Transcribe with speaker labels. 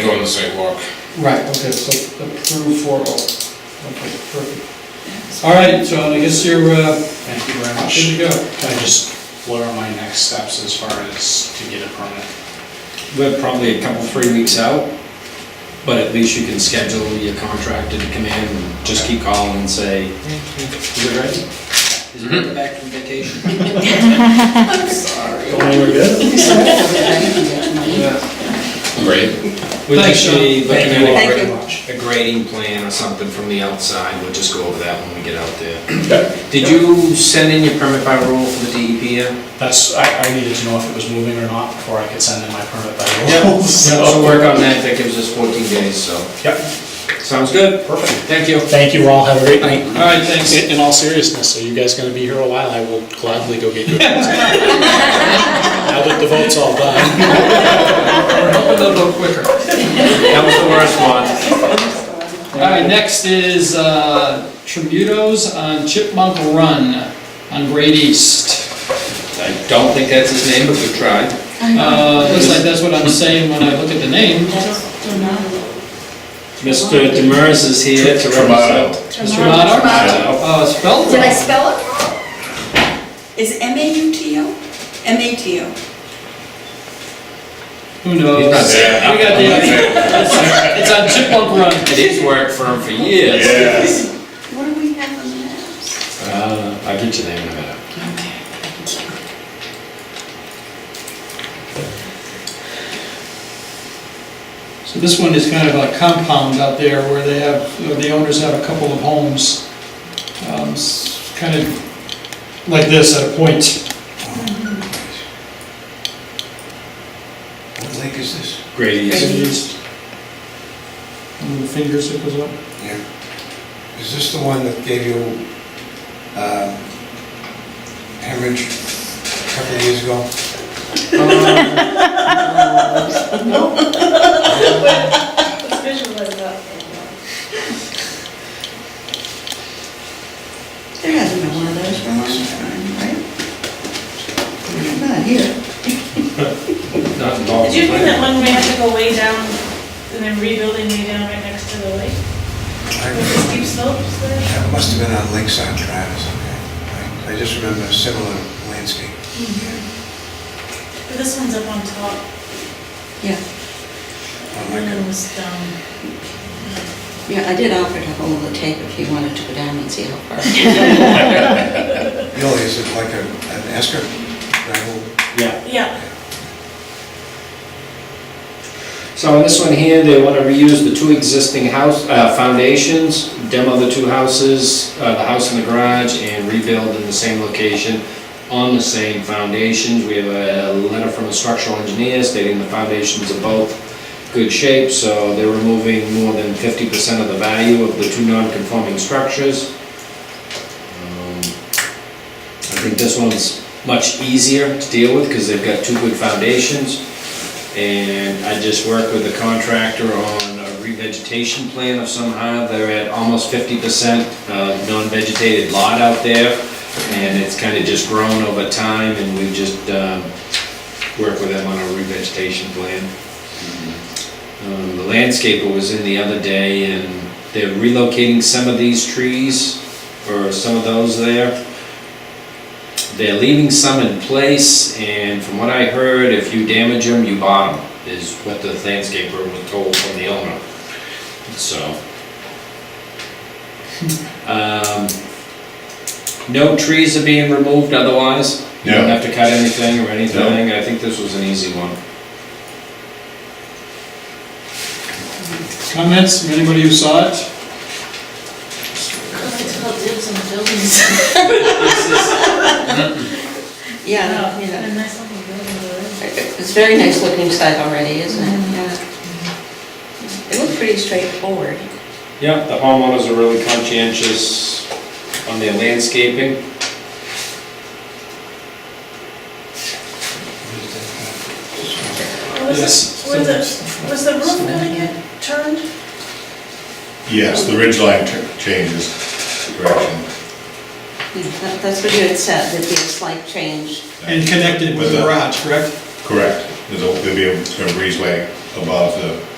Speaker 1: the sidewalk.
Speaker 2: Right, okay, so approve four oh. Okay, perfect. All right, so I guess you're, uh,
Speaker 3: Thank you very much.
Speaker 2: good to go.
Speaker 3: Can I just, what are my next steps as far as to get a permit?
Speaker 4: We're probably a couple, three weeks out, but at least you can schedule your contractor to come in and just keep calling and say, is it ready? Is it ready back from vacation?
Speaker 2: Yeah.
Speaker 1: Great.
Speaker 4: We'd like
Speaker 2: Thanks, Sean.
Speaker 4: to look
Speaker 3: Thank you all
Speaker 4: at
Speaker 3: very much.
Speaker 4: a grading plan or something from the outside, we'll just go over that when we get out there. Did you send in your permit by rule for the E DEP yet?
Speaker 3: That's, I, I needed to know if it was moving or not before I could send in my permit by
Speaker 4: Yeah.
Speaker 3: rule.
Speaker 4: So
Speaker 3: So,
Speaker 4: work on that, that gives us 14 days, so,
Speaker 3: yep,
Speaker 4: sounds good,
Speaker 3: perfect.
Speaker 4: thank you.
Speaker 3: Thank you all, have a great
Speaker 4: night.
Speaker 3: All right, thanks. In in all seriousness, are you guys gonna be here a while? I will gladly go get you. a pizza. Now that the vote's all done.
Speaker 2: We're hoping they'll go quicker.
Speaker 4: That was the worst one.
Speaker 2: All right, next is uh, Tributos on Chipmunk Run on Great East.
Speaker 4: I don't think that's his name, but we tried.
Speaker 2: Uh, Looks like that's what I'm saying when I look at the name.
Speaker 4: Mr. Demers is here to represent.
Speaker 2: Mr. Monarch? Oh, it's spelled
Speaker 5: Did I
Speaker 2: wrong.
Speaker 5: spell it wrong? Is M-A-U-T-O? M-A-T-O.
Speaker 2: Who knows? We
Speaker 4: He's not there.
Speaker 2: got the, it's on Chipmunk Run.
Speaker 4: It is work for him for years.
Speaker 1: Yes.
Speaker 5: What do we have on the maps?
Speaker 4: Uh, I'll get your name in a minute.
Speaker 2: So this one is kind of a compound out there where they have, where the owners have a couple of homes, um, s- kind of like this at a point.
Speaker 1: What lake is this?
Speaker 4: Grady
Speaker 2: Fingers. And the fingers that goes up.
Speaker 1: Yeah. Is this the one that gave you um, hemorrhage a couple of years ago?
Speaker 6: uh,
Speaker 5: There hasn't been one of those for a long time, right? Not here.
Speaker 4: Not involved.
Speaker 6: Did you think that one we had to go way down and then rebuilding way down right next to the lake? With the steep slopes there?
Speaker 1: That must have been on Lakeside Drive or something. right? I just remember a similar landscape.
Speaker 6: But this one's up on top,
Speaker 5: Yeah,
Speaker 1: Oh, my
Speaker 6: and
Speaker 1: God.
Speaker 6: then was down.
Speaker 7: Yeah, I did offer to hold the tape if he wanted to go down and see how far.
Speaker 1: Really, is it like a- an esker gravel?
Speaker 4: Yeah.
Speaker 6: Yeah,
Speaker 4: So on this one here, they want to reuse the two existing house, uh, foundations, demo the two houses, uh, the house and the garage, and rebuild in the same location on the same foundations. We have a letter from a structural engineer stating the foundations are both good shape, so they're removing more than fifty percent of the value of the two non-conforming structures. Um, I think this one's much easier to deal with because they've got two good foundations. And I just worked with the contractor on a revegetation plan of somehow. They're at almost fifty percent uh, non-vegetated lot out there. And it's kind of just grown over time and we just um, worked with them on a revegetation plan. Um, The landscaper was in the other day and they're relocating some of these trees or some of those there. They're leaving some in place, and from what I heard, if you damage them, you bottom, is what the landscaper was told from the owner, so. Um, No trees are being removed otherwise, you don't have to cut anything or anything, I think this was an easy one.
Speaker 2: Comments from anybody who saw it?
Speaker 6: God, it's called dibs on buildings.
Speaker 7: Yeah,
Speaker 6: And
Speaker 7: Oh, yeah.
Speaker 6: a nice looking building, though.
Speaker 7: It's a very nice looking site already, isn't
Speaker 5: Mm-hmm.
Speaker 7: it? Yeah. It looked pretty straightforward.
Speaker 4: Yeah, the homeowners are really conscientious on their landscaping.
Speaker 6: What was
Speaker 2: Yes.
Speaker 6: it- Was it, was the roof gonna get turned?
Speaker 8: Yes, the ridge line ch- changes direction.
Speaker 7: That- That's what you had said, there'd be a slight change.
Speaker 2: And connected with the garage, correct?
Speaker 8: Correct. There's a, there'll be a a breezeway above the